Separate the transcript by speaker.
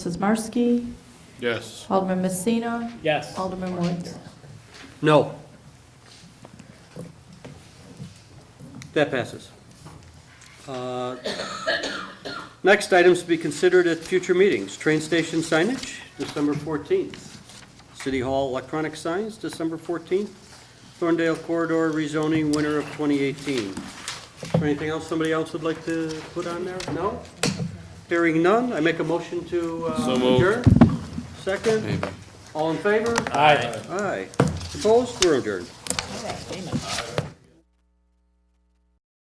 Speaker 1: Sismarski,
Speaker 2: Yes.
Speaker 1: Alderman Messina,
Speaker 3: Yes.
Speaker 1: Alderman Woods.
Speaker 4: No. That passes. Uh, Next items to be considered at future meetings, train station signage, December 14th. City Hall electronic signs, December 14th. Thorndale corridor rezoning, winter of 2018. Is there anything else somebody else would like to put on there? No? Hearing none, I make a motion to uh,
Speaker 2: So moved.
Speaker 4: adjourn. Second? All in favor?
Speaker 3: Aye.
Speaker 4: Aye. Opposed? We're adjourned.